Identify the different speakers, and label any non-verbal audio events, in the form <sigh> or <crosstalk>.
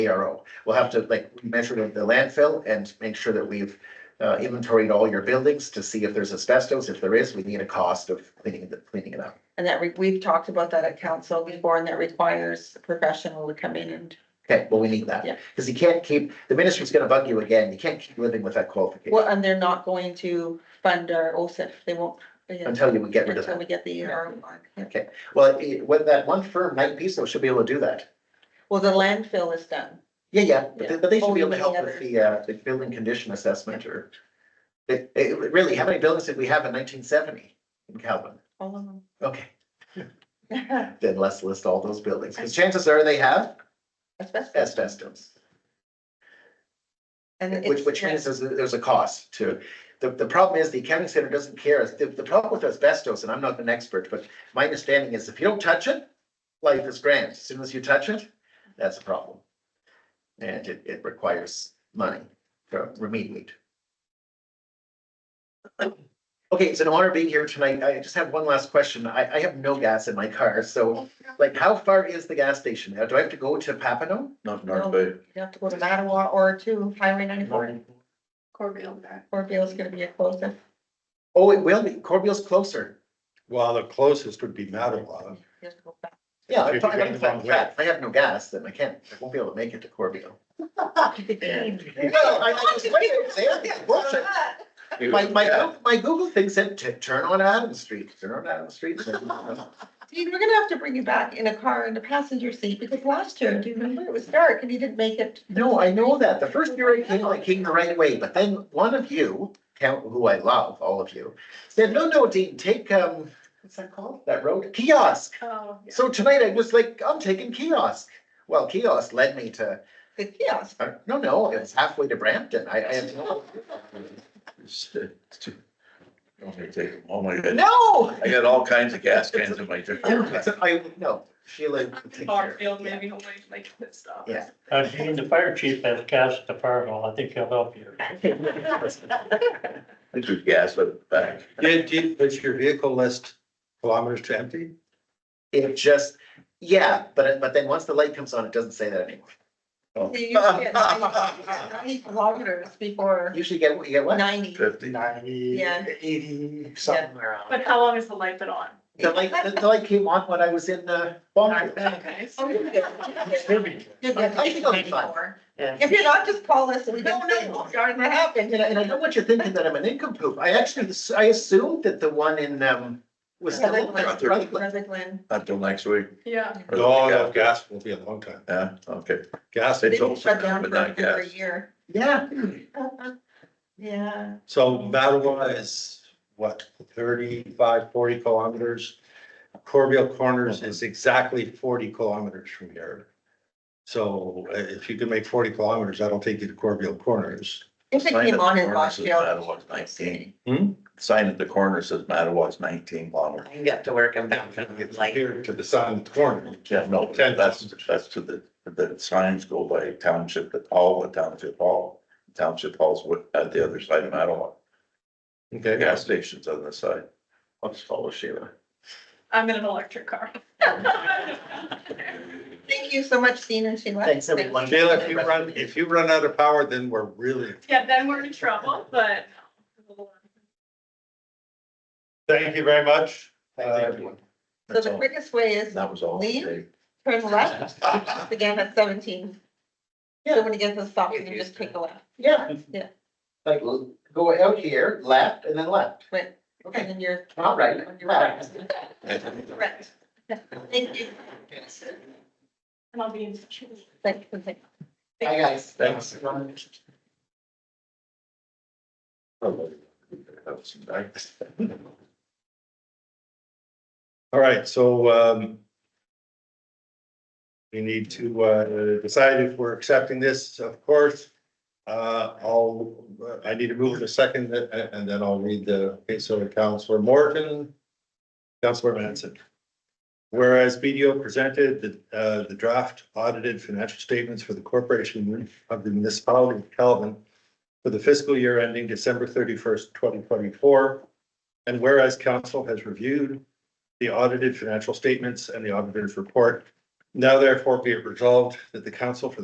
Speaker 1: ARO. We'll have to like measure the the landfill and make sure that we've uh, inventoried all your buildings to see if there's asbestos. If there is, we need a cost of cleaning the, cleaning it up.
Speaker 2: And that we, we've talked about that at council before and that requires a professional to come in and,
Speaker 1: Okay, well, we need that.
Speaker 2: Yeah.
Speaker 1: Cause you can't keep, the ministry's gonna bug you again. You can't keep living with that
Speaker 2: well,
Speaker 1: qualification
Speaker 2: and they're not going to fund our OSIF. They won't. yeah,
Speaker 1: until you would get rid of
Speaker 2: Until
Speaker 1: that.
Speaker 2: we get the ER on. yeah.
Speaker 1: Okay, well, it- when that one firm, Knight Piso, should be able to do that.
Speaker 2: Well, the landfill is done.
Speaker 1: Yeah, yeah, but they,
Speaker 2: Yeah.
Speaker 1: but they
Speaker 2: Oh,
Speaker 1: should be
Speaker 2: you
Speaker 1: able to
Speaker 2: mean
Speaker 1: help
Speaker 2: the
Speaker 1: with
Speaker 2: other-
Speaker 1: the, uh, the building condition assessment or. It, it, really, how many buildings did we have in nineteen seventy in Calvin?
Speaker 2: All of them.
Speaker 1: Okay, <laughs> then let's list all those buildings, cause chances are they have
Speaker 2: Asbestos.
Speaker 1: asbestos.
Speaker 2: And
Speaker 1: Which,
Speaker 2: it's-
Speaker 1: which means there's, there's a cost to, the, the problem is the accounting center doesn't care. The, the problem with asbestos, and I'm not an expert, but my understanding is if you don't touch it, life is grand. As soon as you touch it, that's a problem. And it, it requires money to remediate. Okay, it's an honor being here tonight. I just have one last question. I, I have no gas in my car, so like how far is the gas station? Now, Do I have to go to Papano?
Speaker 3: Not
Speaker 2: No,
Speaker 3: North Bay.
Speaker 2: You have to go to Mattawa or to Highway ninety-four,
Speaker 4: Corville back.
Speaker 2: or Bill's gonna be a closer.
Speaker 1: Oh, it will be. Corbeil's closer.
Speaker 3: Well, the closest would be Mattawa.
Speaker 2: You have to go back.
Speaker 1: Yeah,
Speaker 3: If
Speaker 1: I'm
Speaker 3: you
Speaker 1: talking
Speaker 3: got
Speaker 1: about
Speaker 3: the
Speaker 1: the
Speaker 3: wrong
Speaker 1: fact that if I have no gas, then I can't, I won't be able to make it to Corbeil.
Speaker 2: Yeah.
Speaker 1: I, I was waiting, there, it's bullshit. My, my, Goo- my Google thing said to turn on Adams Street, turn on Adams Street.
Speaker 2: Dean, we're gonna have to bring you back in a car in the passenger seat, because last year, do you remember, it was dark and you didn't make it.
Speaker 1: No, I know that. The first year I came, I came the right way, but then one of you, count who I love, all of you, said, no, no, Dean, take, um, what's that called? That road? Kiosk.
Speaker 4: Oh, yeah.
Speaker 1: So tonight I was like, I'm taking kiosk. Well, kiosk led me to
Speaker 2: The kiosk,
Speaker 1: Uh, No, no, it's halfway to Brampton. I, I have no.
Speaker 3: Don't they take them? Oh my god,
Speaker 1: No!
Speaker 3: I got all kinds of gas cans in
Speaker 2: <laughs>
Speaker 3: my truck.
Speaker 1: I, no, Sheila. take care.
Speaker 4: Barfield, maybe, hopefully, like, good stuff.
Speaker 1: Yeah.
Speaker 5: Uh, Dean, the fire chief has gas at the fire hall. I think he'll help you.
Speaker 3: This was gas, but back.
Speaker 6: Did, did, does your vehicle list kilometers to empty?
Speaker 1: It just, yeah, but, it- but then once the light comes on, it doesn't say that anymore.
Speaker 2: you used to get
Speaker 1: <laughs>
Speaker 2: ninety ninety kilometers before
Speaker 1: Usually you get, you get what? Uh,
Speaker 2: ninety.
Speaker 3: Fifty.
Speaker 6: Ninety,
Speaker 2: Yeah.
Speaker 6: eighty,
Speaker 2: something
Speaker 4: But how long has the light been on?
Speaker 1: The light, the the light came on when I was in, uh, Bonneville.
Speaker 4: Okay. so-
Speaker 2: Oh, you'll get- you'll get- you'll get
Speaker 1: I think I'll be fine.
Speaker 2: 94. If you're not, just call us and we
Speaker 1: No,
Speaker 2: can
Speaker 1: no.
Speaker 2: say what's going to happen.
Speaker 1: And I, and I know what you're thinking, that I'm an incomplete. I actually, I assumed that the one in, um, was still. open.
Speaker 2: Brother Glenn,
Speaker 3: Not till next week.
Speaker 4: Yeah,
Speaker 3: or the
Speaker 6: No,
Speaker 3: week
Speaker 6: no,
Speaker 3: after.
Speaker 6: gas will be a long time.
Speaker 3: Yeah, okay.
Speaker 6: Gas,
Speaker 2: they
Speaker 3: It's
Speaker 2: didn't
Speaker 3: also
Speaker 2: shut down
Speaker 3: not, but
Speaker 2: for
Speaker 3: not
Speaker 2: over a
Speaker 3: gas.
Speaker 1: <laughs>
Speaker 2: year.
Speaker 1: Yeah,
Speaker 2: Yeah,
Speaker 6: so Mattawa is what, 35, 40 kilometers? Corbeil Corners is exactly forty kilometers from here. So uh, if you can make forty kilometers, that'll take you to Corbeil Corners.
Speaker 2: if it
Speaker 3: Sign
Speaker 2: came
Speaker 3: at
Speaker 2: on
Speaker 3: the
Speaker 2: in
Speaker 3: corner says
Speaker 2: Rockville.
Speaker 3: Mattawa's Nineteen.
Speaker 6: Hmm?
Speaker 3: Sign at the corner says Mattawa's nineteen longer.
Speaker 7: I got to work and back from the
Speaker 6: It's
Speaker 7: light.
Speaker 6: Here to the sun corner.
Speaker 3: Yeah, no,
Speaker 6: Ten
Speaker 3: that's,
Speaker 6: thousand.
Speaker 3: that's to the, the signs go by township, all the township hall. Township halls wi- at the other side of Mattawa. The
Speaker 6: Okay,
Speaker 3: gas station's on the side.
Speaker 1: I'll just follow Sheila.
Speaker 4: I'm in an electric car. <laughs>
Speaker 2: Thank you so much, Dean and Sheila.
Speaker 1: Thanks, everyone.
Speaker 6: Sheila, if you run, if you run out of power, then we're really,
Speaker 4: Yeah, then we're in trouble,
Speaker 1: <laughs>
Speaker 4: but.
Speaker 6: thank you very much.
Speaker 1: Thank you.
Speaker 6: Uh,
Speaker 2: So
Speaker 3: That's
Speaker 2: the
Speaker 3: all.
Speaker 2: quickest way is
Speaker 3: That was all.
Speaker 2: Leave?
Speaker 3: today.
Speaker 2: turn left,
Speaker 6: <laughs>
Speaker 2: began at seventeen. So when you get to the stop, you can just take a left,
Speaker 1: Yeah.
Speaker 2: Yeah.
Speaker 1: Like, l- go out here, left, and then left.
Speaker 2: but,
Speaker 1: Okay.
Speaker 2: and then you're.
Speaker 1: All right.
Speaker 2: You're right. Correct. <laughs> Thank you.
Speaker 4: And I'll be in touch. with you.
Speaker 2: Thank you. Thank you.
Speaker 1: Hi, guys.
Speaker 3: Thanks.
Speaker 1: Thanks.
Speaker 3: That was nice.
Speaker 6: All right, so um. We need to uh decide if we're accepting this, of course. Uh, I'll, I need to move in a second uh, and then I'll read the, okay, so Counselor Morgan. Counselor Manson. Whereas BDO presented the uh the draft audited financial statements for the corporation of the municipality of Calvin. For the fiscal year ending December thirty first, twenty twenty four. And whereas council has reviewed the audited financial statements and the auditor's report. Now therefore be it resolved that the council for the